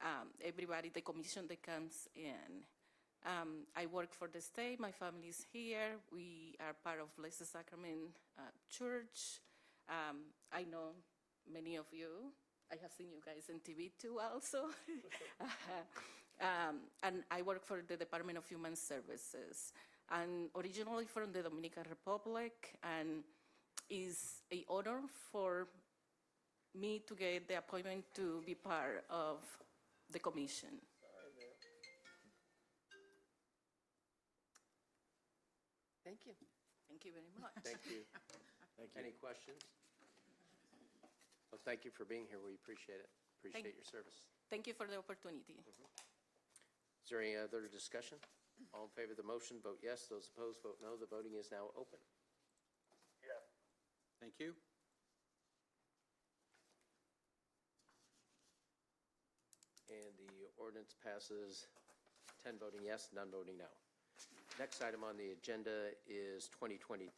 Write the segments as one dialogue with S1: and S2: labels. S1: um, everybody, the commission that comes in. Um, I work for the state, my family is here, we are part of Blessed Sacrament uh, Church. Um, I know many of you, I have seen you guys on TV too also. Um, And I work for the Department of Human Services. And originally from the Dominican Republic, and is a honor for me to get the appointment to be part of the commission.
S2: Thank you.
S1: Thank you very much.
S2: Thank you. Thank you. Any questions? Well, thank you for being here. We appreciate it. Appreciate your service.
S1: Thank you for the opportunity.
S2: Is there any other discussion? All in favor of the motion, vote yes. Those opposed, vote no. The voting is now open.
S3: Thank you.
S2: And the ordinance passes 10 voting yes, none voting no. Next item on the agenda is 2023-121,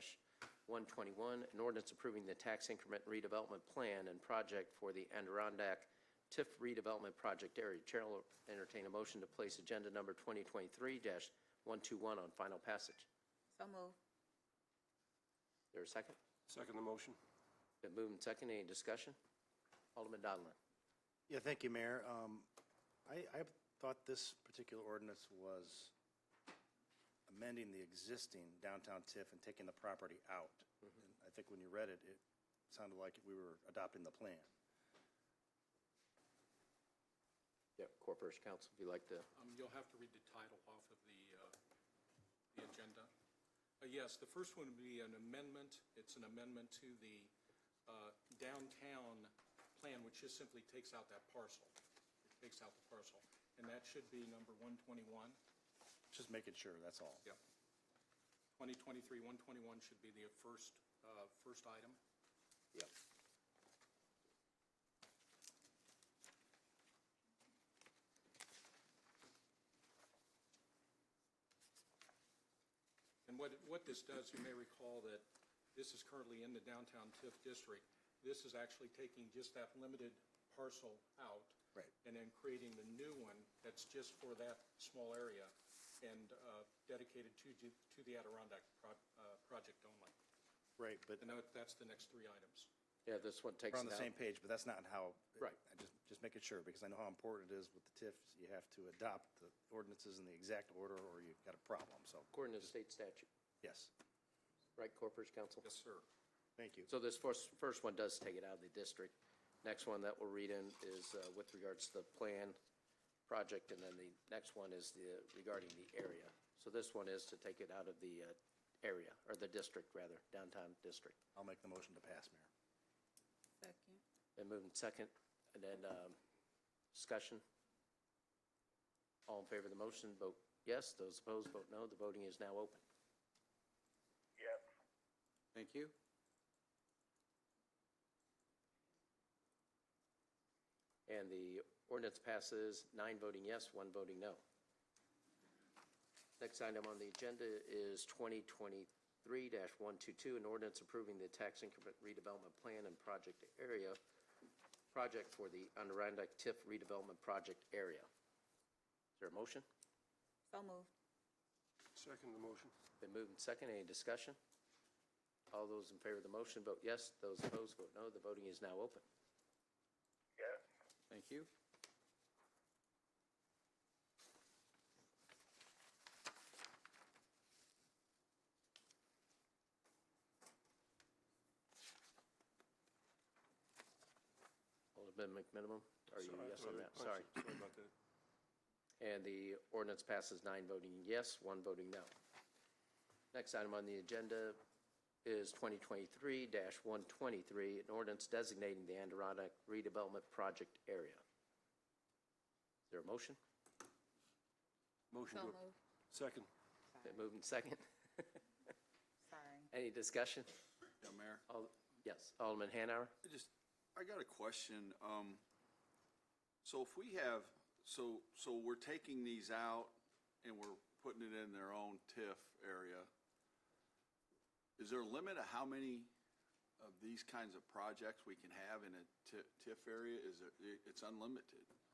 S2: an ordinance approving the tax increment redevelopment plan and project for the Adirondack TIF redevelopment project area. Chair will entertain a motion to place agenda number 2023-121 on final passage.
S4: So move.
S2: There a second?
S5: Second the motion.
S2: Been moved and seconded. Any discussion? Alderman Donlin.
S6: Yeah, thank you, Mayor. Um, I, I thought this particular ordinance was amending the existing downtown TIF and taking the property out. And I think when you read it, it sounded like we were adopting the plan.
S2: Yeah, Corporation Counsel, if you'd like to.
S7: Um, You'll have to read the title off of the, uh, the agenda. Uh, Yes, the first one would be an amendment. It's an amendment to the uh, downtown plan, which just simply takes out that parcel. It Takes out the parcel. And that should be number 121.
S6: Just making sure, that's all.
S7: Yep. 2023-121 should be the first, uh, first item.
S2: Yep.
S7: And what, what this does, you may recall that this is currently in the downtown TIF district. This is actually taking just that limited parcel out.
S6: Right.
S7: And then creating the new one that's just for that small area and uh, dedicated to, the- to the Adirondack pro- uh, project only.
S6: Right, but
S7: And that- that's the next three items.
S2: Yeah, this one takes it out.
S6: we're on the same page, but that's not how.
S2: Right.
S6: I Just, just making sure, because I know how important it is with the TIFs. You have to adopt the ordinances in the exact order or you've got a problem, so,
S2: According to the state statute,
S6: yes.
S2: right, Corporation Counsel?
S7: Yes, sir.
S6: Thank you.
S2: So this first, first one does take it out of the district. Next one that we'll read in is uh, with regards to the plan project, and then the next one is the, regarding the area. So this one is to take it out of the uh, area, or the district, rather, downtown district.
S6: I'll make the motion to pass, Mayor.
S4: Second.
S2: Then moving second, and then um, discussion. All in favor of the motion, vote yes. Those opposed, vote no. The voting is now open.
S3: Thank you.
S2: And the ordinance passes, nine voting yes, one voting no. Next item on the agenda is 2023-122, an ordinance approving the tax increment redevelopment plan and project area, project for the Adirondack TIF redevelopment project area. Is there a motion?
S4: So move.
S5: Second the motion.
S2: Been moved and seconded. Any discussion? All those in favor of the motion, vote yes. Those opposed, vote no. The voting is now open.
S3: Thank you.
S2: Alderman McMinimum, are you yes on that? Sorry.
S5: uh, Sorry about that.
S2: And the ordinance passes nine voting yes, one voting no. Next item on the agenda is 2023-123, an ordinance designating the Adirondack redevelopment project area. Is there a motion?
S5: Motion
S4: So
S5: to,
S4: move.
S5: second.
S2: Been moved and second.
S4: Sorry.
S2: Any discussion?
S8: Yeah, Mayor,
S2: Al- Yes, Alderman Hanauer?
S8: I just, I got a question. Um, so if we have, so, so we're taking these out and we're putting it in their own TIF area. Is there a limit of how many of these kinds of projects we can have in a ti- TIF area? Is it, it's unlimited?